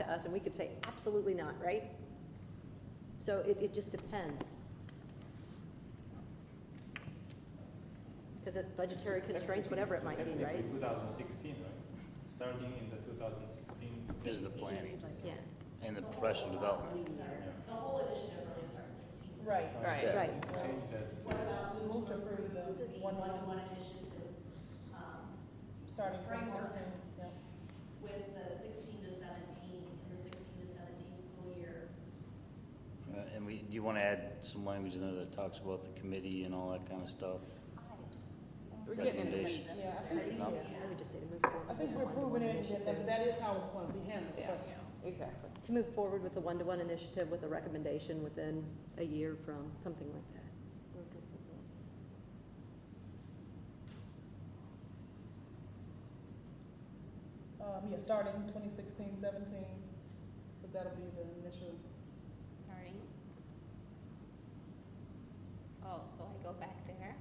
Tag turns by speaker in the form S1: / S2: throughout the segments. S1: us, and we could say, absolutely not, right? So it, it just depends. Because it budgetary constraints, whatever it might be, right?
S2: Technically, 2016, right? Starting in the 2016.
S3: Is the planning
S1: Yeah,
S3: and the professional development.
S4: The whole initiative really starts sixteen. so
S5: Right.
S6: Right.
S3: Yeah.
S1: right.
S2: Change that.
S4: What about move to approve the
S5: This
S4: one
S5: one.
S4: one addition to, um,
S5: Starting from
S4: Framework.
S5: sixteen, yeah.
S4: with the sixteen to seventeen, and the sixteen to seventeen school year?
S3: Uh, And we, do you want to add some language in there that talks about the committee and all that kind of stuff?
S6: We're getting it late.
S3: Recommendations.
S5: Yeah, I think,
S3: No.
S5: yeah.
S1: I would just say to move
S5: I
S1: forward.
S5: think
S1: with
S5: we're
S1: the one-to-one
S5: proving it, and
S1: initiative.
S5: that- that is how it's gonna be handled,
S6: Yeah,
S5: but
S6: exactly.
S1: To move forward with the one-to-one initiative with a recommendation within a year from, something like that.
S5: Um, yeah, starting 2016, 17, because that'll be the initial.
S7: Starting. Oh, so I go back there?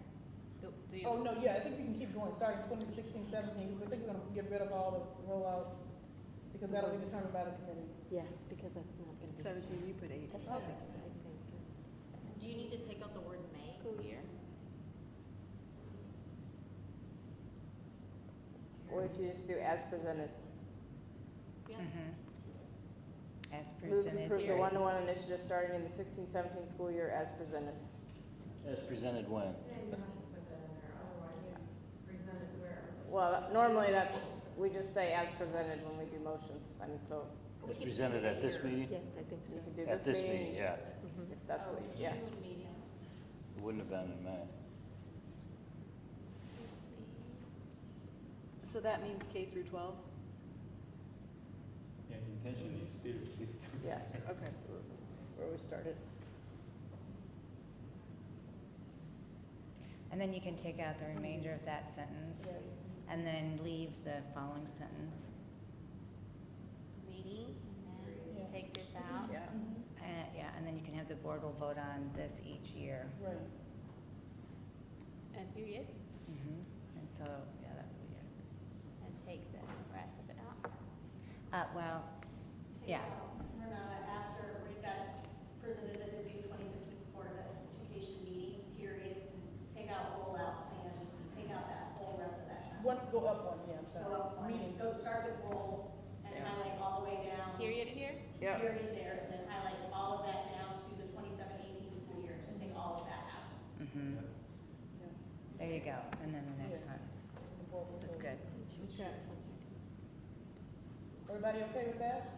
S7: Do, do you?
S5: Oh, no, yeah, I think we can keep going, starting 2016, 17, because I think we're gonna get rid of all the rollout, because that'll be determined by the committee.
S1: Yes, because that's not going to be. Seventeen, you put eight. That's
S7: Okay.
S1: I think.
S4: Do you need to take out the word may?
S7: School year?
S6: Or if you just do as presented.
S4: Yeah.
S3: Mm-hmm.
S8: As
S6: Move to approve the
S7: Period.
S6: one-to-one initiative starting in the 16-17 school year as presented.
S3: As presented when?
S6: Well, normally that's, we just say as presented when we do motions, I mean, so
S4: We
S3: As
S4: can
S3: presented
S4: do
S3: at this
S4: year.
S3: meeting?
S1: Yes, I think so.
S6: you can do this meeting.
S3: At this meeting, yeah.
S1: Mhm.
S6: if That's
S4: Oh,
S6: what, yeah.
S4: June meeting.
S3: It wouldn't have been in May.
S9: So that means K through 12?
S2: Yeah, intention is still, is to.
S6: Yes,
S9: Okay.
S6: where we started.
S8: And then you can take out the remainder of that sentence and then leave the following sentence.
S7: Meeting, and
S5: Yeah.
S7: then take this out?
S6: Yeah.
S8: Uh, yeah, and then you can have the board will vote on this each year.
S5: Right.
S7: And period,
S8: Mhm. And so, yeah, that would be it.
S7: and take the rest of it out?
S8: Uh, well,
S4: Take
S8: Yeah.
S4: out Renata, after we've got presented at the Duke 2015 Board of Education meeting, period, take out rollout plan, take out that whole rest of that sentence.
S5: One, go up one, yeah, I'm
S4: Go
S5: sorry.
S4: up one,
S5: Meeting.
S4: go start with roll, and
S6: Yeah.
S4: highlight all the way down.
S7: Period here?
S6: Yep.
S4: Period there, and then highlight all of that down to the 27-18 school year, just take all of that out.
S8: mhm.
S5: Yeah.
S8: there you go, and then the next
S5: Yeah.
S8: sentence.
S5: The board will
S8: That's
S5: vote.
S8: good.
S5: Okay. Everybody okay with that?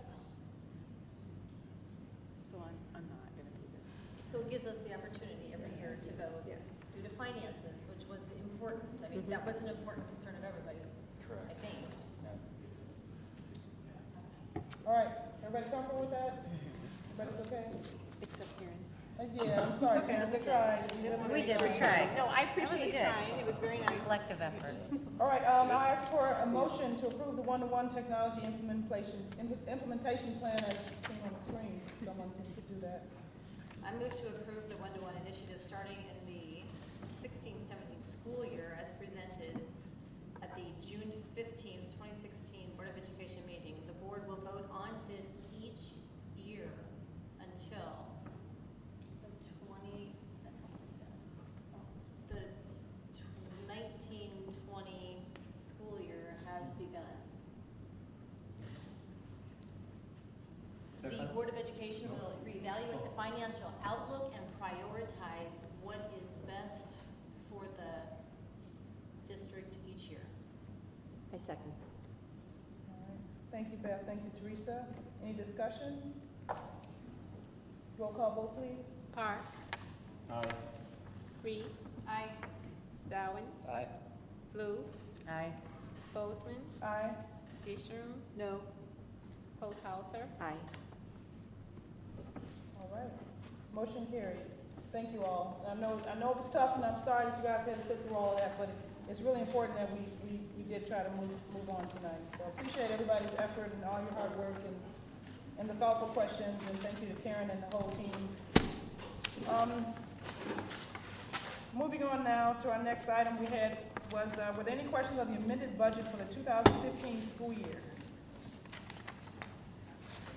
S9: So I'm, I'm not going to be there.
S4: So it gives us the opportunity every year to go
S1: Yeah.
S4: due to finances, which was important. I mean, that was an important concern of everybody's, I
S3: Correct.
S4: think.
S5: All right, everybody comfortable with that? Everybody's okay?
S9: Except Karen.
S5: Uh, Yeah, I'm sorry, Karen, we tried.
S8: We did, we tried.
S9: No, I
S8: was
S9: appreciate you
S8: good.
S9: trying, it was very nice.
S8: Collective effort.
S5: All right, um, I'll ask for a motion to approve the one-to-one technology implementation, im- implementation plan as seen on the screen. Someone can do that.
S4: I move to approve the one-to-one initiative starting in the 16-17 school year as presented at the June 15th, 2016 Board of Education meeting. The board will vote on this each year until the 20, that's what I said. The 19-20 school year has begun. The
S2: Second.
S4: Board of Education will reevaluate the financial outlook and prioritize what is best for the district each year.
S1: I second.
S5: All right. Thank you, Beth, thank you, Teresa. Any discussion? Roll call vote, please.
S7: Park,
S2: Aye.
S7: Reed,
S4: I
S7: Zawin,
S3: Aye.
S7: Blue,
S8: Aye.
S7: Bozeman,
S5: Aye.
S7: Disharum,
S9: No.
S7: Posthauser,
S1: Aye.
S5: All right, motion carried. Thank you all. I know, I know it was tough, and I'm sorry that you guys had to sit through all of that, but it's really important that we, we, we did try to move, move on tonight. So I appreciate everybody's effort and all your hard work and, and the thoughtful questions, and thank you to Karen and the whole team. Um, Moving on now to our next item we had was, uh, were there any questions on the amended budget for the 2015 school year?